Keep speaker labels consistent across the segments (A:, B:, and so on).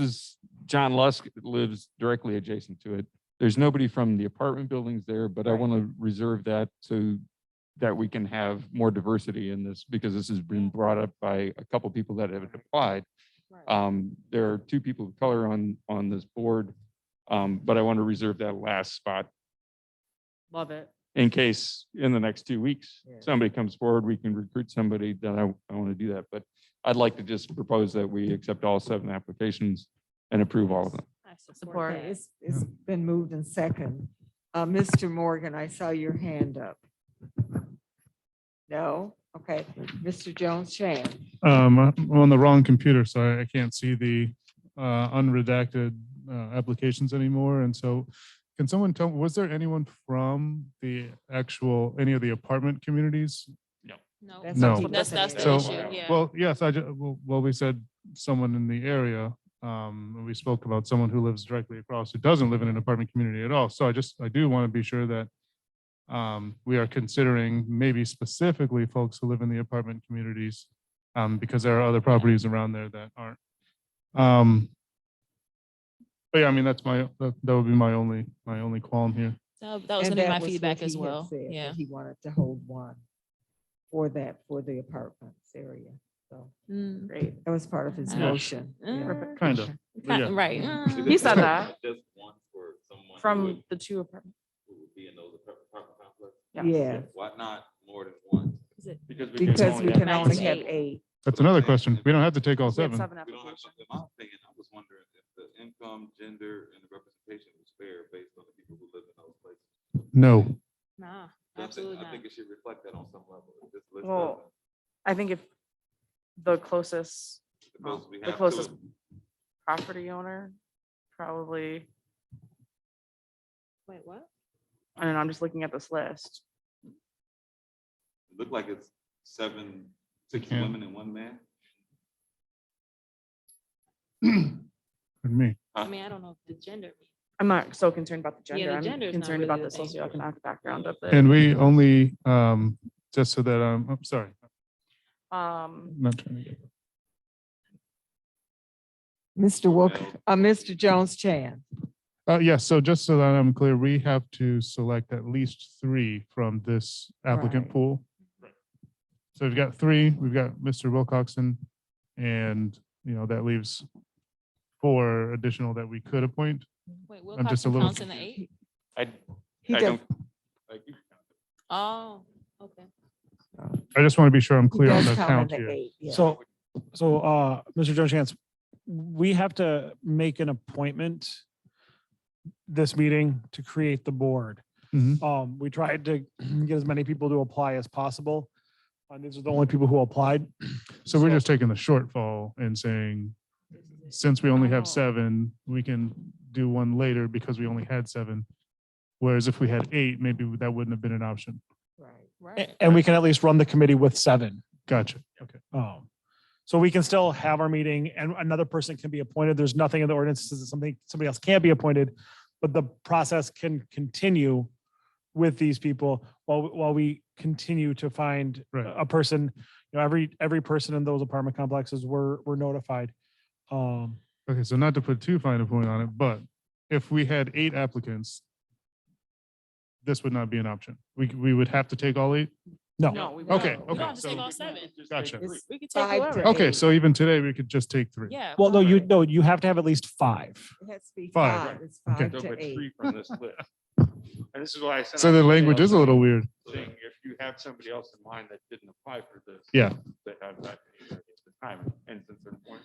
A: is, John Lusk lives directly adjacent to it. There's nobody from the apartment buildings there, but I
B: Right.
A: want to reserve that so that we can have more diversity in this, because this has been brought up by a couple people that have applied. Um, there are two people of color on, on this board. Um, but I want to reserve that last spot
B: Love it.
A: in case in the next two weeks,
B: Yeah.
A: somebody comes forward, we can recruit somebody, then I, I want to do that. But I'd like to just propose that we accept all seven applications and approve all of them.
B: I
C: Support.
B: support
C: that.
B: that.
D: It's, it's been moved in second. Uh, Mr. Morgan, I saw your hand up. No? Okay. Mr. Jones Chan,
E: Um, I'm on the wrong computer, so I- I can't see the uh, unredacted uh, applications anymore. And so can someone tell, was there anyone from the actual, any of the apartment communities?
C: No.
D: That's
E: No.
C: That's, that's the
E: So-
C: issue, yeah.
E: Well, yes, I, ju- well, well, we said someone in the area. um, and We spoke about someone who lives directly across, who doesn't live in an apartment community at all. So I just, I do want to be sure that um, we are considering maybe specifically folks who live in the apartment communities um, because there are other properties around there that aren't. Um, But yeah, I mean, that's my, that that would be my only, my only qualm here.
C: That that was
D: and
C: gonna be
D: that
C: my
D: was what
C: feedback
D: he
C: as
D: had
C: well,
D: said, that
C: yeah.
D: He wanted to hold one for that, for the apartments area. So,
C: Mm.
D: great. That was part of his
C: Yeah.
D: motion.
C: Mm.
D: Yeah.
E: Kind of.
C: Kind-
E: yeah.
C: Right.
B: Mm.
C: He
B: said that.
F: Just one for someone. who
B: From
F: would-
B: the two apartments.
F: Who would be in those apart- apartment complex?
B: Yeah.
D: Yeah,
F: Why not more than one?
A: Because
D: because we can
C: have
D: only
C: eight.
D: have eight.
E: That's another question. We don't have to take all
B: We have
E: seven.
F: We don't have, in my opinion, I was wondering if the income, gender, and the representation was fair based on the people who live in those places.
E: No.
C: Nah,
F: So I think-
C: absolutely
F: I
C: not.
F: think it should reflect that on some level. If this list
B: Well,
F: doesn't,
B: I think if the closest
F: the most we
B: the
F: have to
B: closest-
F: it,
B: property owner, probably,
C: Wait, what?
B: I mean, I'm just looking at this list.
F: it Looked like it's seven, six
E: Yeah.
F: women and one man.
E: Pardon me.
C: I mean, I don't know if the gender.
B: I'm not so concerned about the
C: Yeah,
B: gender.
C: the
B: I'm
C: gender is not
B: concerned
C: really
B: about the
C: the thing.
B: socioeconomic background of it.
E: And we only, um, just so that, I'm, I'm sorry,
B: Um,
E: not trying to get.
D: Mr. Wilk, uh, Mr. Jones Chan.
E: Uh, yes, so just so that I'm clear, we have to select at least three from this applicant
D: Right.
E: pool. So we've got three, we've got Mr. Wilcoxen, and, you know, that leaves four additional that we could appoint.
C: Wait,
E: just
C: Wilcox
E: a little
C: counts in the eight?
A: I,
D: He
A: I
D: does,
A: don't,
F: Like, you can count it.
C: Oh, okay.
E: I just want to be sure I'm
D: he
E: clear on
D: does
E: the
D: count in
E: count
D: the
E: here.
D: eight, yeah.
G: So, so, uh, Mr. Jones Chance, we have to make an appointment this meeting to create the board.
E: Mhm.
G: Um, we tried to get as many people to apply as possible. And these are the only people who applied.
E: So we're just taking the shortfall and saying, since we only
B: Oh.
E: have seven, we can do one later because we only had seven. Whereas if we had eight, maybe that wouldn't have been an option.
D: Right.
C: Right.
G: A- And we can at least run the committee with seven.
E: Gotcha. Okay.
G: Um, so we can still have our meeting and another person can be appointed. There's nothing in the ordinance that says that something, somebody else can't be appointed. But the process can continue with these people while, while we continue to find
E: Right.
G: a person. You know, every, every person in those apartment complexes were, were notified. Um,
E: Okay, so not to put too fine a point on it, but if we had eight applicants, this would not be an option. We, c- we would have to take all eight?
G: no,
B: no, we won't.
E: Okay,
C: No, we don't
E: okay.
C: have to
E: so-
C: take all seven.
E: Gotcha.
D: It's
C: We could take
D: five
C: whoever.
D: to
E: Okay,
D: eight.
E: so even today, we could just take three.
C: Yeah.
G: well, no, you,
D: Five.
G: no, you have to have at least five.
D: It has to be
E: Five.
D: five. It's
E: Okay.
D: five
A: don't
D: to
A: put
D: eight.
A: three from this list. And this is why I sent.
E: So
A: out
E: the
A: an
E: language
A: email
E: is a little weird.
A: saying If you have somebody else in mind that didn't apply for this.
E: Yeah.
A: That have not at the time, and since there weren't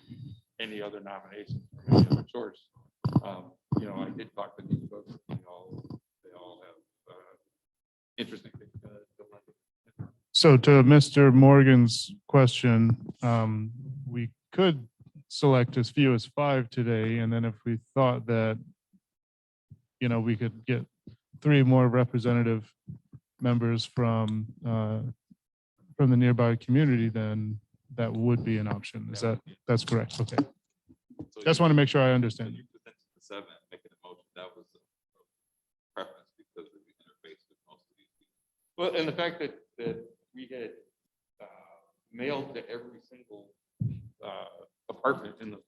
A: any other nominations from any other source. Um, you know, I did talk to these folks, you know, they all have, uh, interesting things. uh, to like.
E: So to Mr. Morgan's question, um, we could select as few as five today, and then if we thought that, you know, we could get three more representative members from, uh, from the nearby community, then that would be an option. Is that, that's correct? Okay.
F: So
E: Just
F: you-
E: want to make sure I
F: so
E: understand.
F: You presented the seven, making a motion, that was a- a preference because of the interface with most of these people.
A: Well, and the fact that, that we had uh, mailed to every single uh, apartment in the